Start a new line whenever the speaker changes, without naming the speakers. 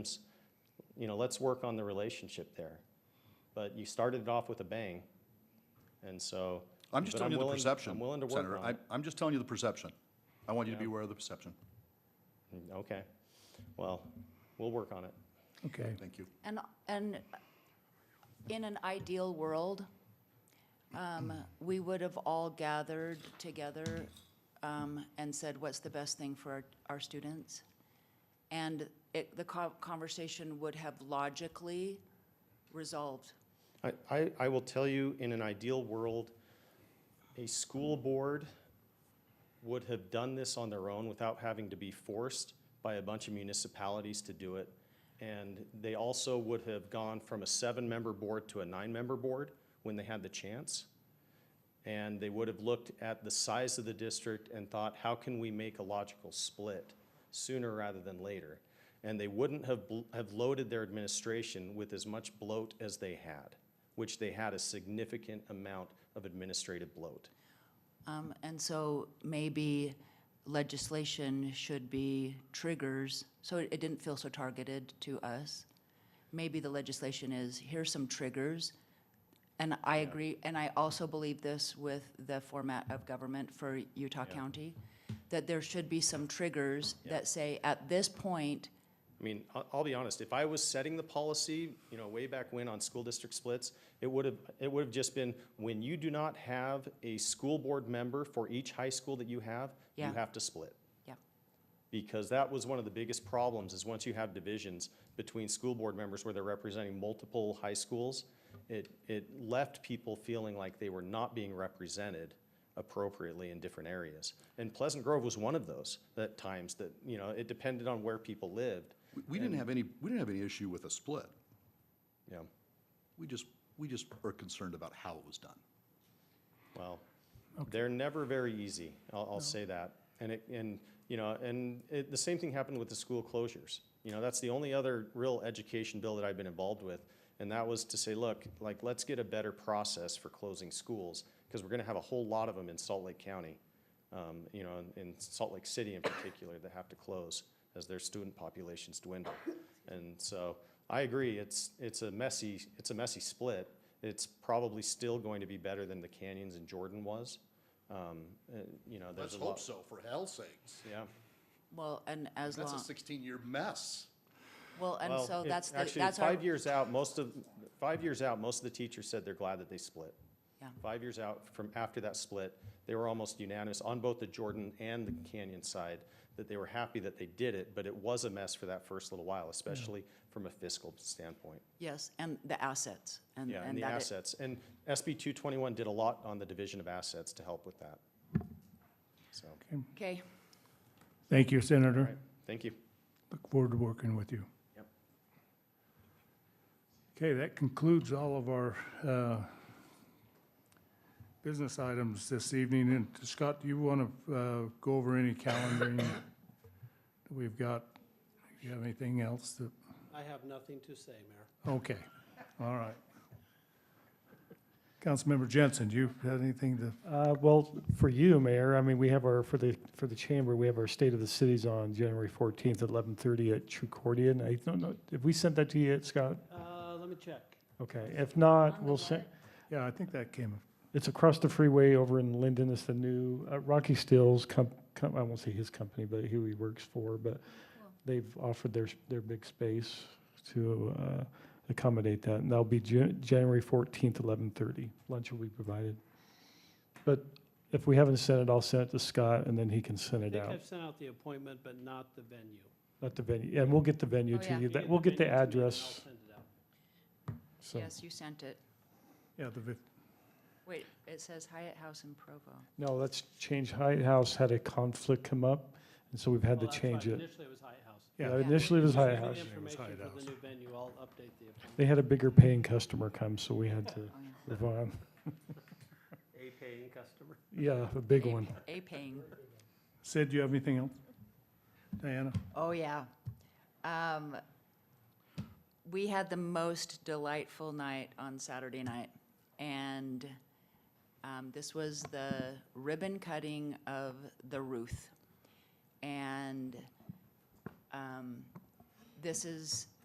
you know, let's work on the relationship there. But you started it off with a bang, and so.
I'm just
but
telling you the
willing-
perception,
I'm willing to
Senator.
work on
I-
it.
I'm just telling you the perception. I want you to be
Yeah.
aware of the perception.
Okay, well, we'll work on it.
Okay.
Thank you.
And, and in an ideal world, um, we would have all gathered together, um, and said, what's the best thing for our, our students? And it, the co- conversation would have logically resolved.
I- I, I will tell you, in an ideal world, a school board would have done this on their own without having to be forced by a bunch of municipalities to do it. And they also would have gone from a seven-member board to a nine-member board when they had the chance. And they would have looked at the size of the district and thought, how can we make a logical split sooner rather than later? And they wouldn't have, bl- have loaded their administration with as much bloat as they had, which they had a significant amount of administrative bloat.
Um, and so maybe legislation should be triggers, so it it didn't feel so targeted to us. Maybe the legislation is, here's some triggers. And I agree, and I also believe this with the format of government for Utah County, that there should be some triggers that say, at this point,
I mean, I'll, I'll be honest, if I was setting the policy, you know, way back when on school district splits, it would have, it would have just been, when you do not have a school board member for each high school that you have, you
Yeah.
have to split.
yeah,
because that was one of the biggest problems is once you have divisions between school board members where they're representing multiple high schools, it, it left people feeling like they were not being represented appropriately in different areas. And Pleasant Grove was one of those at times that, you know, it depended on where people lived,
We- We didn't have any, we didn't have any issue with a split.
you know,
We just, we just were concerned about how it was done.
well, they're never very easy, I'll, I'll say that. And it, and, you know, and it, the same thing happened with the school closures. You know, that's the only other real education bill that I've been involved with. And that was to say, look, like, let's get a better process for closing schools, because we're gonna have a whole lot of them in Salt Lake County. Um, you know, in, in Salt Lake City in particular, that have to close as their student populations dwindle. And so, I agree, it's, it's a messy, it's a messy split. It's probably still going to be better than the Canyons in Jordan was. Um, uh, you know, there's a lot.
so, for hell's sakes.
Yeah.
well, and as long,
16-year mess.
well, and
Well,
so
it-
that's, the
Actually,
that's our,
five years out, most of, five years out, most of the teachers said they're glad that they split.
Yeah.
Five years out from after that split, they were almost unanimous on both the Jordan and the Canyon side that they were happy that they did it, but it was a mess for that first little
Mm.
while, especially from a fiscal standpoint.
yes, and the assets, and,
Yeah, and
Mm. and
the
that it-
assets. And SB 221 did a lot on the division of assets to help with that. So,
Okay,
Thank you,
all
Senator.
right, thank you.
Look forward to working with you.
Yep.
Okay, that concludes all of our uh, business items this evening. And Scott, do you want to uh, go over any calendaring that we've got? Do you have anything else that,
I have nothing to say, Mayor.
okay, all right. Councilmember Jensen, do you have anything to,
Uh, Well, for you, Mayor, I mean, we have our, for the, for the chamber, we have our State of the Cities on January 14th at 11:30 at Trucordia. And I don't know, have we sent that to you yet, Scott?
Uh, let me check.
Okay, if not,
the
we'll send,
yeah, I think that came,
it's across the freeway over in Linden. It's the new uh, Rocky Stills, com- com- I won't say his company, but who he works for, but they've offered their, s- their big space to uh, accommodate that. And that'll be Jan- January 14th, 11:30. Lunch will be provided. But if we haven't sent it, I'll send it to Scott and then he can send
I
it
think
out
I've sent out the appointment, but not the venue.
at the venue. And we'll get the venue
Oh, yeah.
to you.
You
That- We'll get the
venue to me, and
address.
I'll send it out.
so-
yes, you sent it.
yeah, the, vi-
Wait, it says Hyatt House in Provo.
No, let's change. Hyatt House had a conflict come up and so we've had
Well, Oh,
to
that's
change
right.
it.
Initially, it was Hyatt House.
Yeah,
Yeah.
initially it was
Just
Hyatt
for the
House.
It was
Information
Hyatt
for
House.
the new venue, I'll update the appointment.
They had a bigger paying customer come, so we had to
Oh, yeah.
move on.
A paying customer.
Yeah, a big
A-
one.
A paying.
Sid, do you have anything else? Diana?
Oh, yeah. Um, we had the most delightful night on Saturday night. And, um, this was the ribbon cutting of the Ruth. And, um, this is